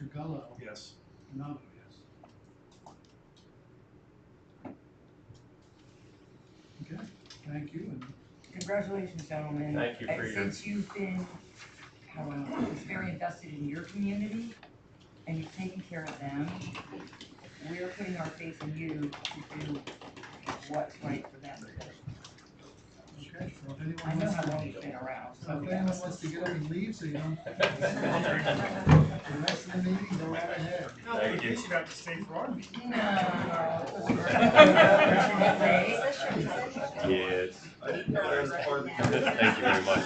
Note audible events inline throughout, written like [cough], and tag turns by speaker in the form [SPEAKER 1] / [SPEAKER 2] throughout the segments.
[SPEAKER 1] Gullo,
[SPEAKER 2] Yes.
[SPEAKER 1] and I'll vote yes. Okay, thank you, and
[SPEAKER 3] Congratulations, gentlemen.
[SPEAKER 4] Thank you for
[SPEAKER 3] Uh,
[SPEAKER 4] your-
[SPEAKER 3] Since you've been, how, uh, was very invested in your community and you've taken care of them, we're putting our faith in you to do what's right for them.
[SPEAKER 1] Okay, so if anyone
[SPEAKER 3] I know
[SPEAKER 1] wants
[SPEAKER 3] how
[SPEAKER 1] to,
[SPEAKER 3] long you've been around,
[SPEAKER 1] so
[SPEAKER 3] so.
[SPEAKER 1] if anyone wants to get up and leave, so you
[SPEAKER 3] [laughs]
[SPEAKER 1] don't, the rest of the meeting, go right ahead.
[SPEAKER 5] No,
[SPEAKER 4] Thank
[SPEAKER 5] but
[SPEAKER 4] you.
[SPEAKER 5] you should have to stay for our meeting.
[SPEAKER 3] No.
[SPEAKER 5] Unfortunately.
[SPEAKER 4] Yes.
[SPEAKER 2] I didn't know that was part of the.
[SPEAKER 4] Thank you very much.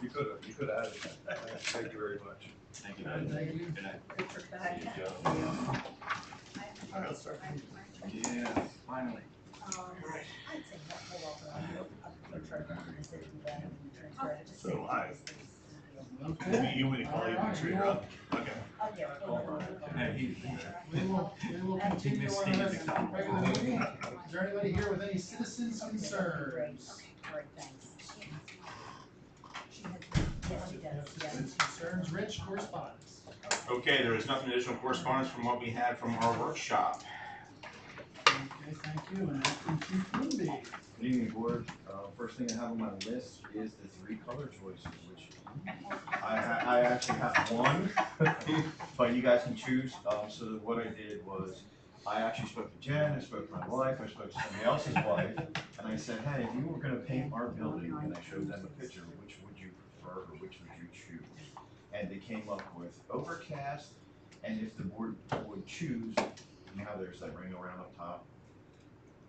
[SPEAKER 2] You could have, you could have added that. Thank you very much.
[SPEAKER 4] Thank
[SPEAKER 1] Thank you.
[SPEAKER 5] I don't know, sir.
[SPEAKER 2] Yeah, finally.
[SPEAKER 4] So I-
[SPEAKER 1] Okay,
[SPEAKER 2] You want to
[SPEAKER 1] call your trigger
[SPEAKER 2] up? Okay.
[SPEAKER 4] Hey, he-
[SPEAKER 1] we will, we will continue on our regular meeting. Is there anybody here with any citizens concerns? Citizens concerns, Rich, correspondence.
[SPEAKER 6] Okay, there is nothing additional correspondence from what we had from our workshop.
[SPEAKER 1] Okay, thank you, and acting chief Moonby.
[SPEAKER 7] Good evening, board. Uh, first thing I have on my list is the three color choices, which I, ha- I actually have one, [laughs] but you guys can choose. Um, so what I did was, I actually spoke to Jen, I spoke to my wife, I spoke to somebody else's wife, and I said, hey, if you were gonna paint our building, and I showed them a picture, which would you prefer, or which would you choose? And they came up with overcast, and if the board would choose, now there's that ring around up top.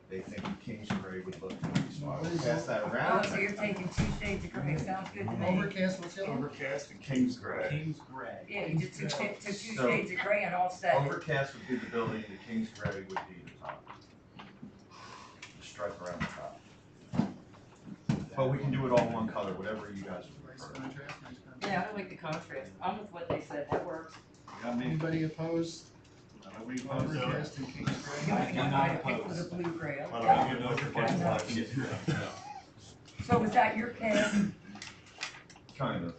[SPEAKER 7] They think Kingsbury would look nice, so I would pass that
[SPEAKER 3] Oh,
[SPEAKER 7] around.
[SPEAKER 3] so you're taking two shades of gray, sounds good to me.
[SPEAKER 1] Overcast, what's the other? one?
[SPEAKER 5] Overcast and
[SPEAKER 7] King's Gray.
[SPEAKER 2] King's Gray.
[SPEAKER 3] Yeah, you just took, took two
[SPEAKER 7] So-
[SPEAKER 3] shades of gray and all set.
[SPEAKER 7] Overcast would be the building, the King's Gray would be the top. The stripe around the top. But we can do it all in one color, whatever you guys
[SPEAKER 1] Nice
[SPEAKER 7] prefer.
[SPEAKER 1] contrast, nice
[SPEAKER 3] Yeah,
[SPEAKER 1] contrast.
[SPEAKER 3] I like the contrast. I'm with what they said, that works.
[SPEAKER 5] I mean,
[SPEAKER 1] Anybody opposed?
[SPEAKER 5] I mean,
[SPEAKER 1] Overcast and Kings
[SPEAKER 3] You
[SPEAKER 1] Gray?
[SPEAKER 3] only got my pick with
[SPEAKER 6] opposed.
[SPEAKER 3] a blue gray.
[SPEAKER 6] Well, I don't know if you're getting one.
[SPEAKER 3] So was that your [laughs] pick?
[SPEAKER 7] Kind of.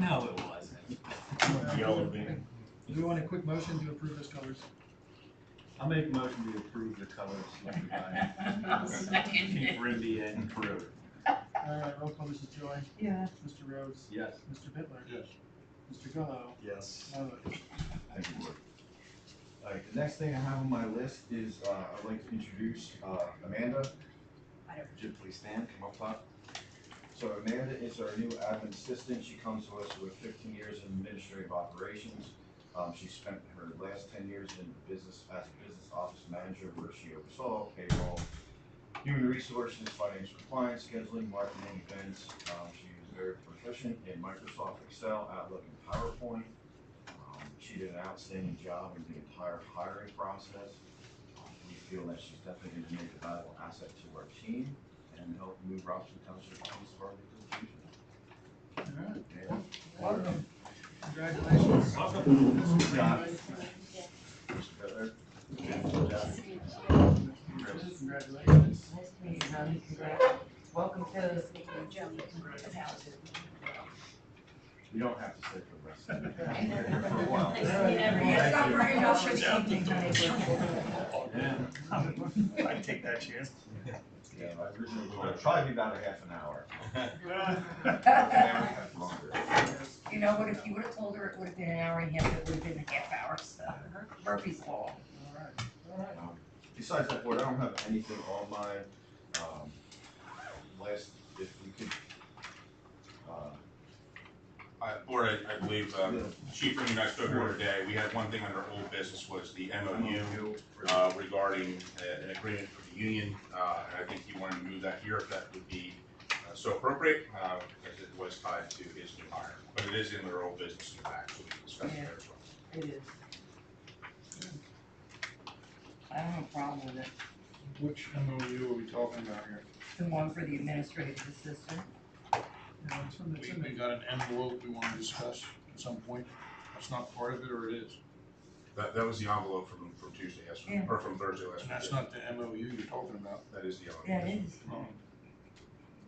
[SPEAKER 4] No, it wasn't.
[SPEAKER 6] Yellow being-
[SPEAKER 1] Do we want a quick motion to approve those colors?
[SPEAKER 7] I'll make a motion to approve the colors selected
[SPEAKER 3] [laughs]
[SPEAKER 7] by
[SPEAKER 4] Keep Rindy and Peru.
[SPEAKER 1] All right, roll call, Mrs. Joy,
[SPEAKER 3] Yeah.
[SPEAKER 1] Mr. Rhodes,
[SPEAKER 4] Yes.
[SPEAKER 1] Mr. Bitler.
[SPEAKER 2] Yes.
[SPEAKER 1] Mr. Gallo.
[SPEAKER 2] Yes.
[SPEAKER 1] I vote yes.
[SPEAKER 7] Thank you, Board. All right, the next thing I have on my list is, uh, I'd like to introduce, uh, Amanda. Jim, please stand, come up top. So Amanda is our new admin assistant. She comes to us with fifteen years in administrative operations. Um, she spent her last ten years in the business, as a business office manager, where she oversaw payroll, human resources, financial compliance, scheduling, marketing, events. Um, she is very proficient in Microsoft Excel, Outlook, and PowerPoint. Um, She did an outstanding job in the entire hiring process. Um, We feel that she's definitely gonna make a valuable asset to our team and help move Robinson Township Council further to the future.
[SPEAKER 1] All right,
[SPEAKER 7] And
[SPEAKER 1] welcome. Congratulations. Welcome.
[SPEAKER 7] Mr. Butler,
[SPEAKER 1] Congratulations.
[SPEAKER 3] Nice to meet you, honey. Congrats. Welcome to
[SPEAKER 6] [laughs]
[SPEAKER 3] the township.
[SPEAKER 7] you don't have to stay for the rest of the
[SPEAKER 1] I
[SPEAKER 7] day. You're here for a while.
[SPEAKER 3] Yeah, stop worrying, I'll show you
[SPEAKER 5] Thank
[SPEAKER 3] something, honey.
[SPEAKER 7] Yeah,
[SPEAKER 5] I'd take that [laughs] chance.
[SPEAKER 7] yeah, I originally, thought it'd probably be about a half an hour.
[SPEAKER 6] [laughs]
[SPEAKER 5] Well,
[SPEAKER 7] Half an hour, half longer.
[SPEAKER 3] You know what, if you would've told her it would've been an hour and a half, it would've been a half hour, so Murphy's Law.
[SPEAKER 1] All right, all right.
[SPEAKER 7] Um, Besides that, board, I don't have anything on my, um, list, if we could, uh,
[SPEAKER 6] Uh, Board, I, I believe, um, Chief Rooney and I spoke earlier today, we had one thing under old business was the MOU uh, regarding uh, an agreement for the union, uh, and I think he wanted to move that here if that would be uh, so appropriate, uh, as it was tied to his new hire. But it is in their old business in the back, so we can discuss it there as well.
[SPEAKER 3] It is. I don't have a problem with it,
[SPEAKER 5] Which MOU are we talking about here?
[SPEAKER 3] the one for the administrative assistant.
[SPEAKER 1] Yeah, it's in the- it's
[SPEAKER 5] We,
[SPEAKER 1] in the-
[SPEAKER 5] we got an envelope we wanna discuss at some point. That's not part of it, or it is?
[SPEAKER 6] That, that was the envelope from, from Tuesday, yes,
[SPEAKER 3] Yeah.
[SPEAKER 6] or from Thursday
[SPEAKER 5] And
[SPEAKER 6] last
[SPEAKER 5] that's
[SPEAKER 6] week.
[SPEAKER 5] not the MOU you're talking about.
[SPEAKER 6] That is the envelope.
[SPEAKER 3] Yeah, it is.
[SPEAKER 5] Um,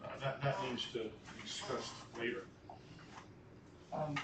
[SPEAKER 5] uh, That, that needs to be discussed later.
[SPEAKER 3] Um,